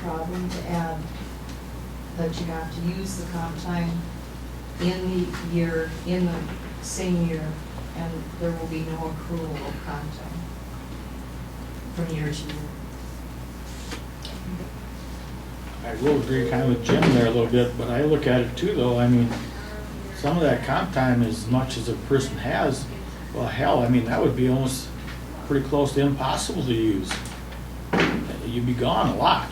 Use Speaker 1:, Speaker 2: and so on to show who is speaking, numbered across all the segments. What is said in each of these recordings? Speaker 1: problem to add that you have to use the comp time in the year, in the same year, and there will be no accrual of comp time from year to year.
Speaker 2: I will agree kind of with Jim there a little bit, but I look at it too, though, I mean, some of that comp time, as much as a person has, well, hell, I mean, that would be almost pretty close to impossible to use. You'd be gone a lot.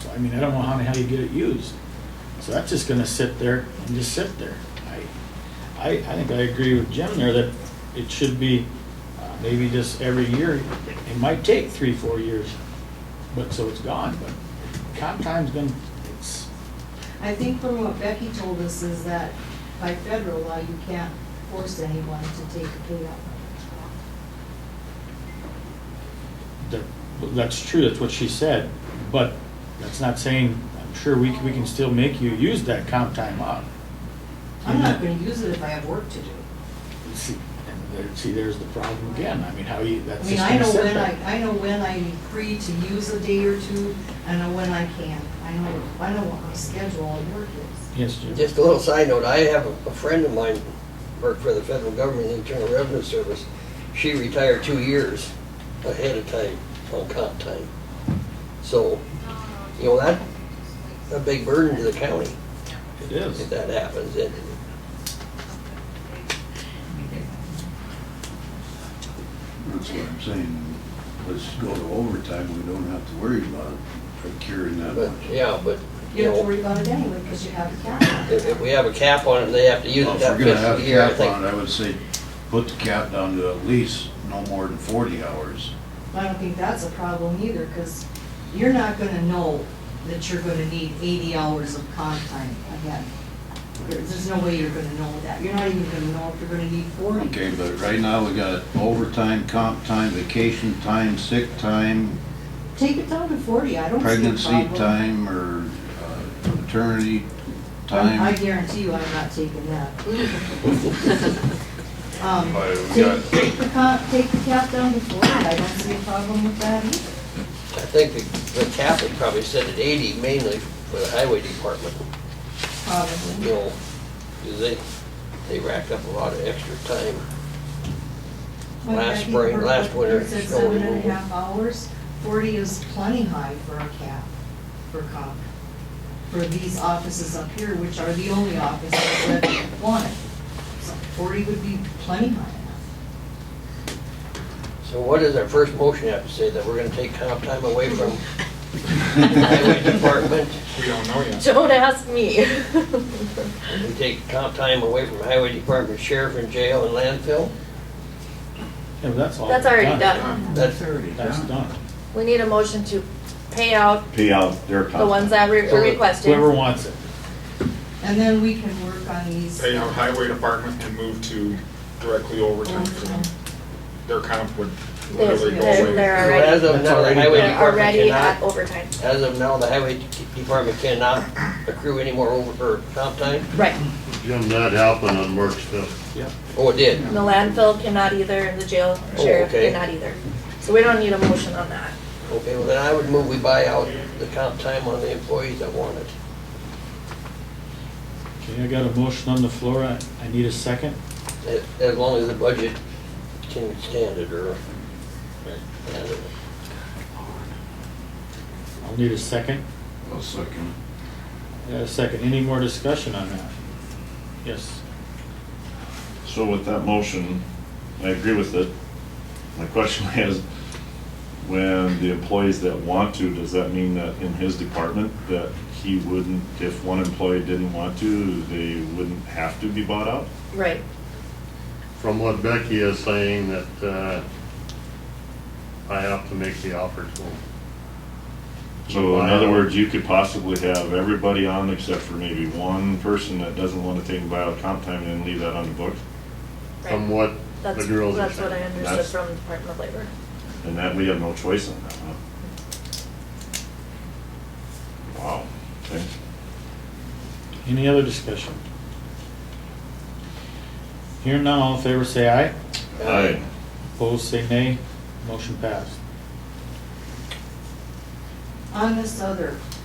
Speaker 2: So, I mean, I don't know how the hell you get it used. So that's just gonna sit there and just sit there. I, I, I think I agree with Jim there that it should be uh, maybe just every year. It might take three, four years, but, so it's gone, but comp time's been, it's,
Speaker 1: I think from what Becky told us is that by federal law, you can't force anyone to take a paid out.
Speaker 2: that, that's true, that's what she said, but that's not saying, I'm sure we, c- we can still make you use that comp time up.
Speaker 1: I'm not gonna use it if I have work to do.
Speaker 2: See, and there, see, there's the problem again, I mean, how you,
Speaker 1: I
Speaker 2: that's
Speaker 1: mean,
Speaker 2: just
Speaker 1: I
Speaker 2: gonna
Speaker 1: know
Speaker 2: sit
Speaker 1: when
Speaker 2: there.
Speaker 1: I, I know when I'm free to use a day or two, I know when I can. I know, I know what my schedule at work is.
Speaker 2: Yes, Jim.
Speaker 3: Just a little side note, I have a a friend of mine worked for the federal government, the Internal Revenue Service. She retired two years ahead of time on comp time. So, you know, that, a big burden to the county
Speaker 2: It is.
Speaker 3: if that happens. And
Speaker 4: That's what I'm saying. Let's go to overtime. We don't have to worry about procuring that
Speaker 3: But,
Speaker 4: much.
Speaker 3: yeah, but,
Speaker 1: You don't have to
Speaker 3: you know,
Speaker 1: worry about it anyway, because you have the capital.
Speaker 3: if, if we have a cap on it, they have to use
Speaker 4: Well,
Speaker 3: it
Speaker 4: Oh, If we're
Speaker 3: that
Speaker 4: gonna have
Speaker 3: fiscal
Speaker 4: a
Speaker 3: year, I
Speaker 4: cap on
Speaker 3: think.
Speaker 4: it, I would say, put the cap down to at least no more than forty hours.
Speaker 1: I don't think that's a problem either, because you're not gonna know that you're gonna need eighty hours of comp time again. There- There's no way you're gonna know that. You're not even gonna know if you're gonna need forty.
Speaker 4: Okay, but right now we got overtime, comp time, vacation time, sick time,
Speaker 1: Take it down to forty, I don't see a problem.
Speaker 4: pregnancy time, or uh, maternity
Speaker 1: I'm- I
Speaker 4: time.
Speaker 1: guarantee you I'm not taking that. Um,
Speaker 5: Why, we
Speaker 1: Take,
Speaker 5: got-
Speaker 1: take the comp, take the cap down to forty, I don't see a problem with that either.
Speaker 3: I think the, the cap would probably set at eighty mainly for the highway department. you
Speaker 1: Probably.
Speaker 3: know, 'cause they, they racked up a lot of extra time.
Speaker 1: But
Speaker 3: Last
Speaker 1: I think
Speaker 3: spring-
Speaker 1: we're-
Speaker 3: last winter,
Speaker 1: it's at
Speaker 3: snow
Speaker 1: seven and a
Speaker 3: removal.
Speaker 1: half hours, forty is plenty high for a cap, for comp. For these offices up here, which are the only offices that want it. So Forty would be plenty high enough.
Speaker 3: So what does our first motion have to say, that we're gonna take comp time away from highway department?
Speaker 5: We don't know yet.
Speaker 6: Don't ask me.
Speaker 3: We take comp time away from highway department, sheriff and jail and landfill?
Speaker 2: Yeah, but that's all.
Speaker 6: That's already done.
Speaker 3: That's,
Speaker 2: That's done.
Speaker 6: We need a motion to pay out
Speaker 7: pay out their comp.
Speaker 6: the ones that we
Speaker 3: So
Speaker 6: were requested.
Speaker 2: Whoever wants it.
Speaker 1: And then we can work on these.
Speaker 5: Pay out highway department and move to directly overtime.
Speaker 1: overtime.
Speaker 5: Their comp would
Speaker 6: They're,
Speaker 5: literally go
Speaker 6: they're-
Speaker 5: away.
Speaker 6: they're
Speaker 3: so as
Speaker 6: already,
Speaker 3: of now, the
Speaker 2: That's already
Speaker 3: highway
Speaker 6: they're
Speaker 3: department
Speaker 6: already uh, at
Speaker 3: cannot,
Speaker 6: overtime.
Speaker 3: as of now, the highway department cannot accrue any more over, or comp time?
Speaker 6: Right.
Speaker 3: Mm-hmm.
Speaker 8: Jim, that happened on March fifth.
Speaker 3: Oh, it did?
Speaker 6: The landfill cannot either, and the jail
Speaker 3: Oh,
Speaker 6: sheriff
Speaker 3: okay.
Speaker 6: cannot either. So we don't need a motion on that.
Speaker 3: Okay, well then I would move we buy out the comp time on the employees that want it.
Speaker 2: Okay, I got a motion on the floor, I, I need a second.
Speaker 3: As- As long as the budget can stand it, or,
Speaker 2: I'll need a second.
Speaker 4: I'll second.
Speaker 2: I got a second. Any more discussion on that? Yes.
Speaker 7: So with that motion, I agree with it. My question is, when the employees that want to, does that mean that in his department, that he wouldn't, if one employee didn't want to, they wouldn't have to be bought out?
Speaker 6: Right.
Speaker 8: From what Becky is saying that, uh, I have to make the offer to him.
Speaker 7: So in other words, you could possibly have everybody on except for maybe one person that doesn't want to take a buyout comp time and then leave that on the books?
Speaker 8: From
Speaker 6: Right.
Speaker 8: what the
Speaker 6: That's,
Speaker 8: girls are
Speaker 6: that's what I
Speaker 8: saying.
Speaker 6: understood
Speaker 7: That's-
Speaker 6: from the Department of Labor.
Speaker 7: And that, we have no choice on that, huh? Wow, okay.
Speaker 2: Any other discussion? Here none, all in favor say aye.
Speaker 7: Aye.
Speaker 2: Opposed say nay. Motion passed.
Speaker 1: on this other